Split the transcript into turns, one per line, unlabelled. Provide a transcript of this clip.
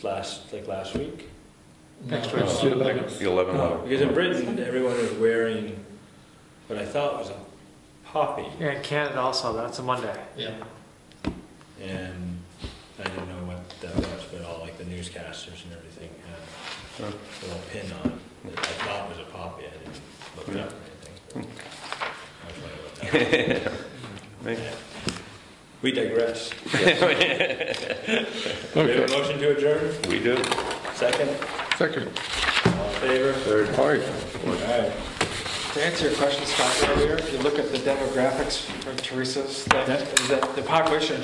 last, like last week.
Next
No.
week's the eleventh.
The 11 level.
Because in Britain, everyone is wearing what I thought was a poppy,
Yeah, in Canada also, that's a Monday.
Yeah.
and I didn't know what that was, but all like the newscasters and everything had a little pin on it that I thought was a poppy. I didn't look it up or anything.
Hmm.
I was wondering what that was.
Maybe.
We digress. Do we have
Okay,
a motion to adjourn?
We do.
Second?
second.
All in favor? Third.
All right.
All right.
To answer your question, Scott, earlier, if you look at the demographics of Teresa's, that,
Yeah.
that the population